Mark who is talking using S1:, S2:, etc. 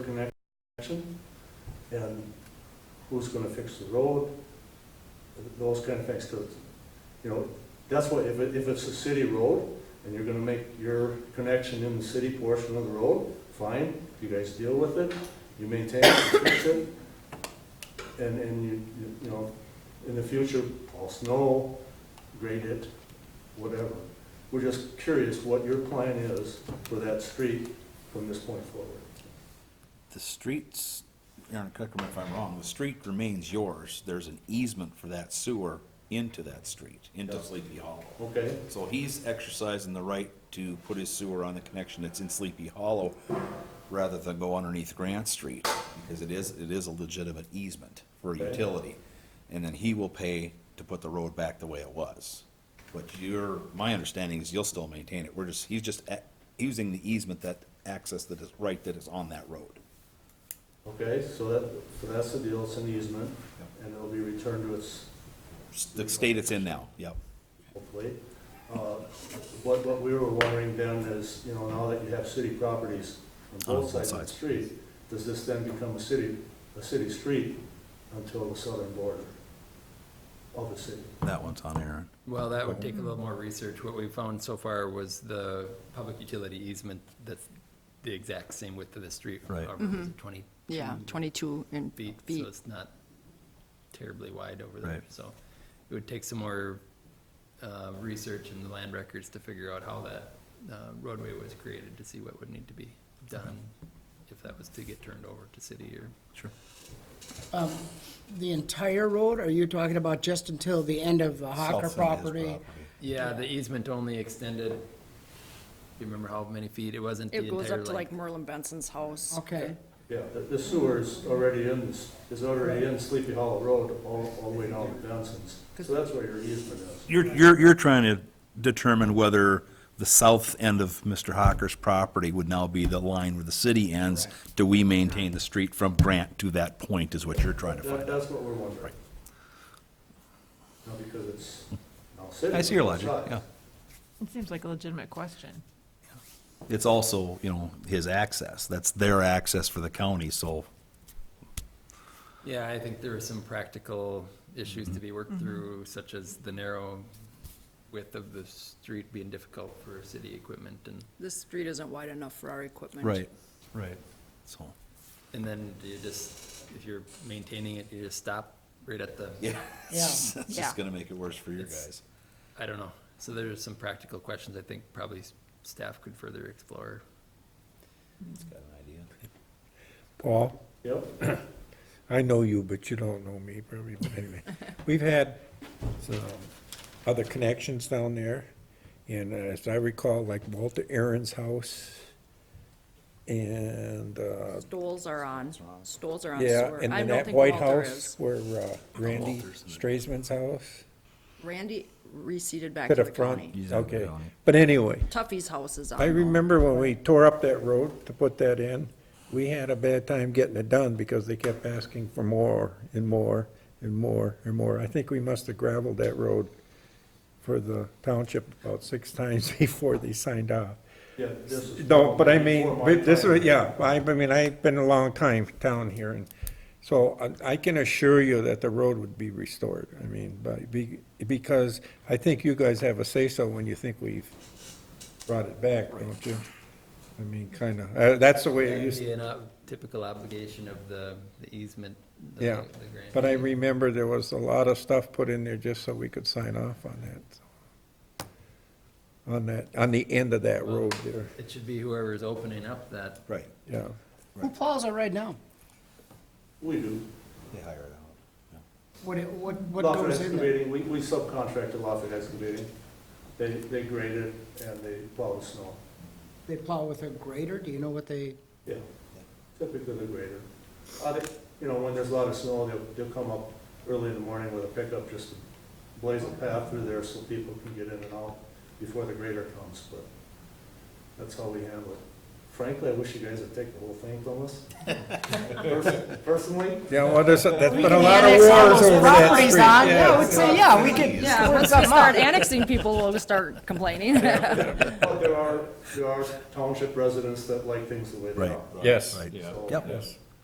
S1: connection, and who's gonna fix the road, those kind of things, 'cause, you know, that's what, if it, if it's a city road, and you're gonna make your connection in the city portion of the road, fine, you guys deal with it, you maintain it, you fix it, and, and you, you- you know, in the future, all snow, grade it, whatever. We're just curious what your plan is for that street from this point forward.
S2: The streets, Aaron, correct me if I'm wrong, the street remains yours. There's an easement for that sewer into that street, into
S1: Yeah.
S2: Sleepy Hollow.
S1: Okay,
S2: So he's exercising the right to put his sewer on the connection that's in Sleepy Hollow rather than go underneath Grant Street, because it is, it is a legitimate easement for a
S1: Okay.
S2: utility. And then he will pay to put the road back the way it was. But your, my understanding is you'll still maintain it. We're just, he's just a- using the easement that access that is right that is on that road.
S1: okay, so that, so that's the deal, it's an easement,
S2: Yep.
S1: and it'll be returned to its,
S2: The state it's in now, yep.
S1: hopefully. Uh, What, what we were wondering then is, you know, now that you have city properties on both sides of the street, does this then become a city, a city street until the southern border of the city?
S2: That one's on Aaron.
S3: Well, that would
S2: Mm-hmm.
S3: take a little more research. What we found so far was the public utility easement that's the exact same width of the street.
S2: Right.
S3: or was it Twenty
S4: Mm-hmm. Yeah, 22 and
S3: feet, so
S4: feet.
S3: it's not terribly wide over there.
S2: Right.
S3: So it would take some more uh, research in the land records to figure out how that uh, roadway was created to see what would need to be done if that was to get turned over to city or
S2: Sure.
S5: The entire road, or are you talking about just until the end of the
S2: South
S5: Hocker
S2: side is
S5: property?
S3: Yeah, the easement only extended, do you remember how many feet? It wasn't the
S4: It
S3: entire
S4: goes up to like
S3: length.
S4: Merlin Benson's house.
S5: Okay,
S1: Yeah, the- the sewer is already in, this- is already in Sleepy Hollow Road all, all the way down to Benson's. So that's where your easement is.
S2: You're, you're, you're trying to determine whether the south end of Mr. Hocker's property would now be the line where the city ends. Do we maintain the street from Grant to that point is what you're trying to
S1: That,
S2: find out.
S1: that's what we're wondering. Now, because it's now city.
S2: I see your
S1: on both
S2: logic, yeah.
S1: sides.
S6: It seems like a legitimate question.
S2: It's also, you know, his access. That's their access for the county, so
S3: Yeah, I think there are some practical issues to be worked through, such as the narrow width of the street being difficult for city equipment and,
S4: This street isn't wide enough for our equipment.
S2: Right, right. So,
S3: and then you just, if you're maintaining it, you just stop right at the,
S2: yeah, it's
S5: Yeah.
S2: it's
S4: Yeah.
S2: just gonna make it worse for your
S3: It's-
S2: guys.
S3: I don't know. So there are some practical questions I think probably s- staff could further explore.
S2: Got an idea?
S7: Paul,
S1: Yep.
S7: I know you, but you don't know me probably, but anyway. We've had some other connections down there, and uh, as I recall, like Walter Aaron's house, and, uh,
S4: Stoles are on, stoles are on
S7: yeah,
S4: sewer.
S7: and
S4: I
S7: then
S4: don't
S7: that
S4: think
S7: White
S4: Walter
S7: House
S4: is.
S7: where uh, Randy
S2: Walters in there.
S7: Straisman's house,
S4: Randy receded back
S7: to
S4: to
S7: the
S4: the
S7: front,
S4: county.
S2: He's out of the
S7: okay.
S2: county.
S7: But anyway,
S4: Tuffy's house is on.
S7: I
S4: though.
S7: remember when we tore up that road to put that in, we had a bad time getting it done because they kept asking for more and more and more and more. I think we must have gravelled that road for the township about six times before they signed off.
S1: Yeah, this is.
S7: No, but I
S1: before
S7: mean,
S1: my
S7: but this
S1: time.
S7: is, yeah, I, I mean, I've been a long time down here and so I, I can assure you that the road would be restored. I mean, but be, because I think you guys have a say-so when you think we've brought it back, don't you? I mean, kinda, uh, that's the way it
S3: That'd
S7: used,
S3: be an ob- typical obligation of the the easement. the-
S7: yeah.
S3: the grant.
S7: But I remember there was a lot of stuff put in there just so we could sign off on that. so. On that, on the end of that road there,
S3: It should be whoever's opening up that
S2: Right,
S7: yeah.
S5: who plows it right now?
S1: We do.
S2: they hire it out.
S5: What, it- what, what
S1: Lawford
S5: goes in there?
S1: Excavating, we, we subcontracted Lawford Excavating. They, they grade it and they plow the snow.
S5: They plow with a grader, do you know what they,
S1: Yeah, typically the grader. Uh, they- You know, when there's a lot of snow, they'll, they'll come up early in the morning with a pickup just to blaze a path through there so people can get in and out before the grader comes, but that's how we handle it. frankly, I wish you guys would take the whole thing from us. Pers- Personally,
S7: Yeah, well, there's, that's
S5: We
S7: been a
S5: can
S7: lot of
S5: annex all
S7: wars
S5: those
S7: over that
S5: properties
S7: street.
S5: on,
S7: yeah.
S5: yeah, I would say, yeah, we could.
S4: Yeah,
S5: work
S4: once we
S5: something
S4: start
S5: out.
S4: annexing people, we'll start complaining.
S1: but there are, there are township residents that like things the way they
S2: Right.
S1: are.
S7: Yes.
S1: So-
S2: Yep.